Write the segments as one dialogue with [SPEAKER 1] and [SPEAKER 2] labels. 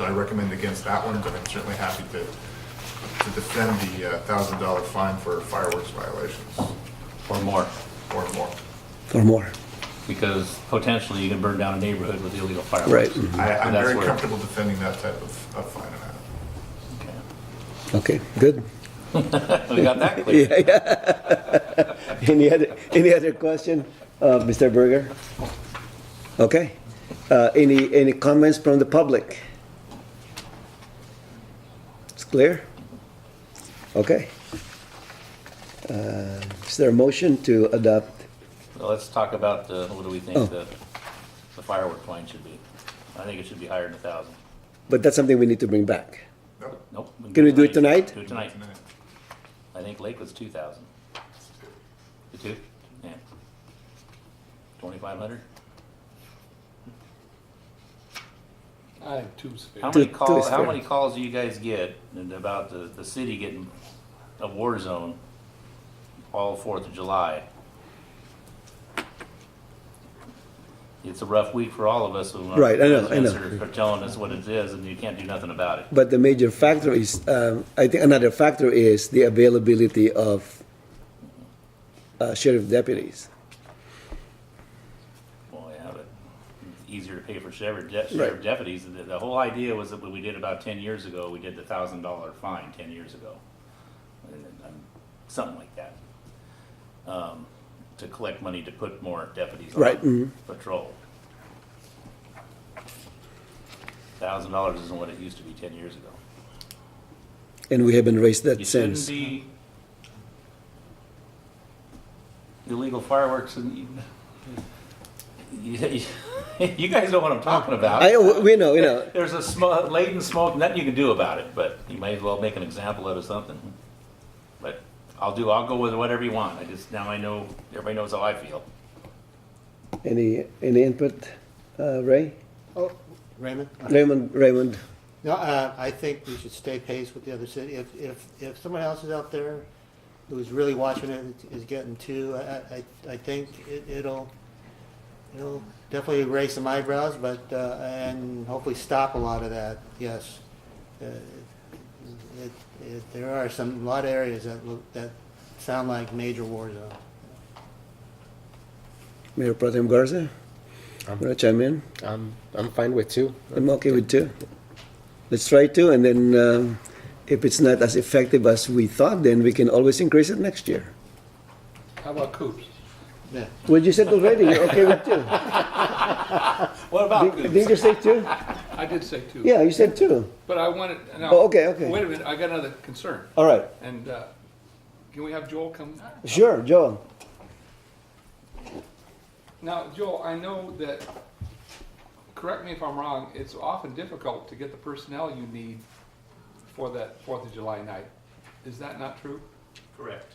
[SPEAKER 1] I recommend against that one, but I'm certainly happy to, to defend the uh, thousand dollar fine for fireworks violations
[SPEAKER 2] or more,
[SPEAKER 1] or more.
[SPEAKER 2] Mm-hmm.
[SPEAKER 3] or more.
[SPEAKER 2] because potentially you can burn down a neighborhood with illegal
[SPEAKER 3] Right.
[SPEAKER 2] fireworks.
[SPEAKER 1] I, Mm-hmm. I'm
[SPEAKER 2] That's
[SPEAKER 1] very
[SPEAKER 2] where-
[SPEAKER 1] comfortable defending that type of, of fine amount.
[SPEAKER 2] Okay.
[SPEAKER 3] Okay, good.
[SPEAKER 2] We got that clear.
[SPEAKER 3] Yeah, yeah. Any other, any other question, uh, Mr. Berger? Okay. Uh, Any, any comments from the public? It's clear? Okay. Uh, Is there a motion to adopt?
[SPEAKER 2] Well, Let's talk about the, what do we
[SPEAKER 3] Oh.
[SPEAKER 2] think the the firework fine should be? I think it should be higher than a thousand.
[SPEAKER 3] But that's something we need to bring back.
[SPEAKER 1] Nope.
[SPEAKER 2] Nope.
[SPEAKER 3] Can we do it tonight?
[SPEAKER 2] Do it tonight.
[SPEAKER 1] Tonight.
[SPEAKER 2] I think Lake was two thousand. The two? Yeah. Twenty-five hundred?
[SPEAKER 4] I have two spares.
[SPEAKER 2] How
[SPEAKER 3] Two-
[SPEAKER 2] many
[SPEAKER 3] two
[SPEAKER 2] calls,
[SPEAKER 3] is
[SPEAKER 2] how
[SPEAKER 3] fair.
[SPEAKER 2] many calls do you guys get about the, the city getting a war zone all Fourth of July? It's a rough week for all of us. when our
[SPEAKER 3] Right, I know, I
[SPEAKER 2] residents
[SPEAKER 3] know.
[SPEAKER 2] Are are telling us what it is and you can't do nothing about it.
[SPEAKER 3] But the major factor is, um, I think another factor is the availability of uh, sheriff deputies.
[SPEAKER 2] Well, yeah, but it's easier to pay for sheriff, de-
[SPEAKER 3] Right.
[SPEAKER 2] sheriff deputies. The, the whole idea was that what we did about ten years ago, we did the thousand dollar fine ten years ago. And, um, Something like that. Um, to collect money to put more deputies
[SPEAKER 3] Right, mhm.
[SPEAKER 2] on patrol. Thousand dollars isn't what it used to be ten years ago.
[SPEAKER 3] And we haven't raised that
[SPEAKER 2] You shouldn't
[SPEAKER 3] since.
[SPEAKER 2] be illegal fireworks and you, you, you guys know what I'm talking about.
[SPEAKER 3] I, we know, we know.
[SPEAKER 2] There's a smoke, latent smoke, nothing you can do about it, but you may as well make an example out of something. But I'll do, I'll go with whatever you want. I just, now I know, everybody knows how I feel.
[SPEAKER 3] Any, any input, uh, Ray?
[SPEAKER 5] Oh, Raymond?
[SPEAKER 3] Raymond, Raymond,
[SPEAKER 5] No, uh, I think we should stay pace with the other city. If, if, if someone else is out there who's really watching it, is getting two, I, I, I think it- it'll, it'll definitely raise some eyebrows, but, uh, and hopefully stop a lot of that, yes. Uh, it- it- There are some, a lot of areas that look, that sound like major war zones.
[SPEAKER 3] Mayor Pro Tem Garza?
[SPEAKER 6] Um,
[SPEAKER 3] Want to chime in?
[SPEAKER 6] I'm I'm fine with two.
[SPEAKER 3] I'm okay with two. Let's try two, and then um, if it's not as effective as we thought, then we can always increase it next year.
[SPEAKER 4] How about coops?
[SPEAKER 5] Yeah.
[SPEAKER 3] Well, you said already, you're okay with two.
[SPEAKER 4] What about
[SPEAKER 3] Did- Didn't
[SPEAKER 4] coops?
[SPEAKER 3] you say two?
[SPEAKER 4] I did say two.
[SPEAKER 3] Yeah, you said two.
[SPEAKER 4] But I wanted, no.
[SPEAKER 3] Oh, okay, okay.
[SPEAKER 4] Wait a minute, I got another concern.
[SPEAKER 3] All right,
[SPEAKER 4] And, uh, can we have Joel come?
[SPEAKER 3] sure, Joel.
[SPEAKER 4] Now, Joel, I know that, correct me if I'm wrong, it's often difficult to get the personnel you need for that Fourth of July night. Is that not true?
[SPEAKER 7] Correct.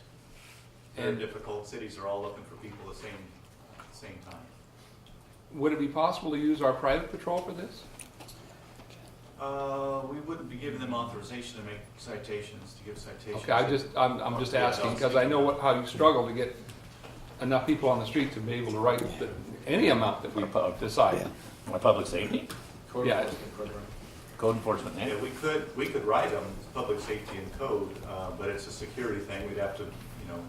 [SPEAKER 7] Very
[SPEAKER 4] And-
[SPEAKER 7] difficult. Cities are all looking for people the same, same time.
[SPEAKER 4] Would it be possible to use our private patrol for this?
[SPEAKER 7] Uh, we wouldn't be giving them authorization to make citations, to give citations.
[SPEAKER 4] Okay, I just, I'm, I'm just asking, because I know what, how you struggle to get enough people on the street to be able to write the- any amount that we decide.
[SPEAKER 2] My public safety,
[SPEAKER 7] Code
[SPEAKER 4] yeah.
[SPEAKER 7] enforcement program.
[SPEAKER 2] code enforcement, eh?
[SPEAKER 7] Yeah, we could, we could write them, public safety and code, uh, but it's a security thing. We'd have to, you know,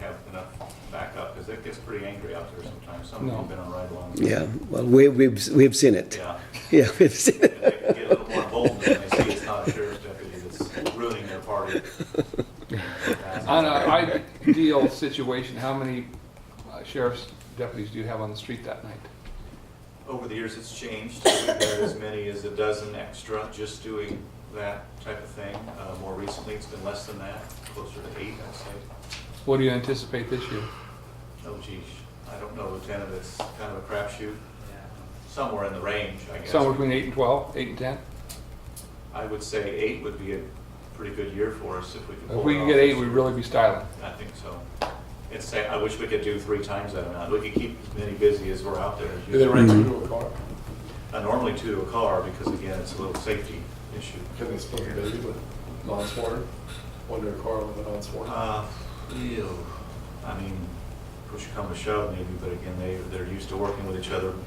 [SPEAKER 7] have enough backup, because it gets pretty angry out there sometimes. Some of
[SPEAKER 4] No.
[SPEAKER 7] them have been on ride-alongs.
[SPEAKER 3] Yeah, well, we, we've, we've seen it.
[SPEAKER 7] Yeah.
[SPEAKER 3] Yeah, we've seen it.
[SPEAKER 7] And they can get a little more bold when they see it's not a sheriff's deputy that's ruining their party.
[SPEAKER 4] On an ideal situation, how many uh, sheriff's deputies do you have on the street that night?
[SPEAKER 7] Over the years, it's changed. We've had as many as a dozen extra just doing that type of thing. Uh, More recently, it's been less than that, closer to eight, I'd say.
[SPEAKER 4] What do you anticipate this year?
[SPEAKER 7] Oh geez, I don't know, Lieutenant, it's kind of a crapshoot. Somewhere in the range, I guess.
[SPEAKER 4] Somewhere between eight and 12, eight and 10?
[SPEAKER 7] I would say eight would be a pretty good year for us if we could pull
[SPEAKER 4] If
[SPEAKER 7] it off.
[SPEAKER 4] we can get eight, we'd really be styling.
[SPEAKER 7] I think so. It's, say- I wish we could do three times that amount. We could keep as many busy as we're out there. as
[SPEAKER 4] Do they
[SPEAKER 7] usual.
[SPEAKER 4] rent two to a car?
[SPEAKER 7] Uh, Normally two to a car, because again, it's a little safety issue.
[SPEAKER 8] Can they still be busy with non-sworn, under a car with a non-sworn?
[SPEAKER 7] Uh, ew. I mean, push come to shove maybe, but again, they, they're used to working with each other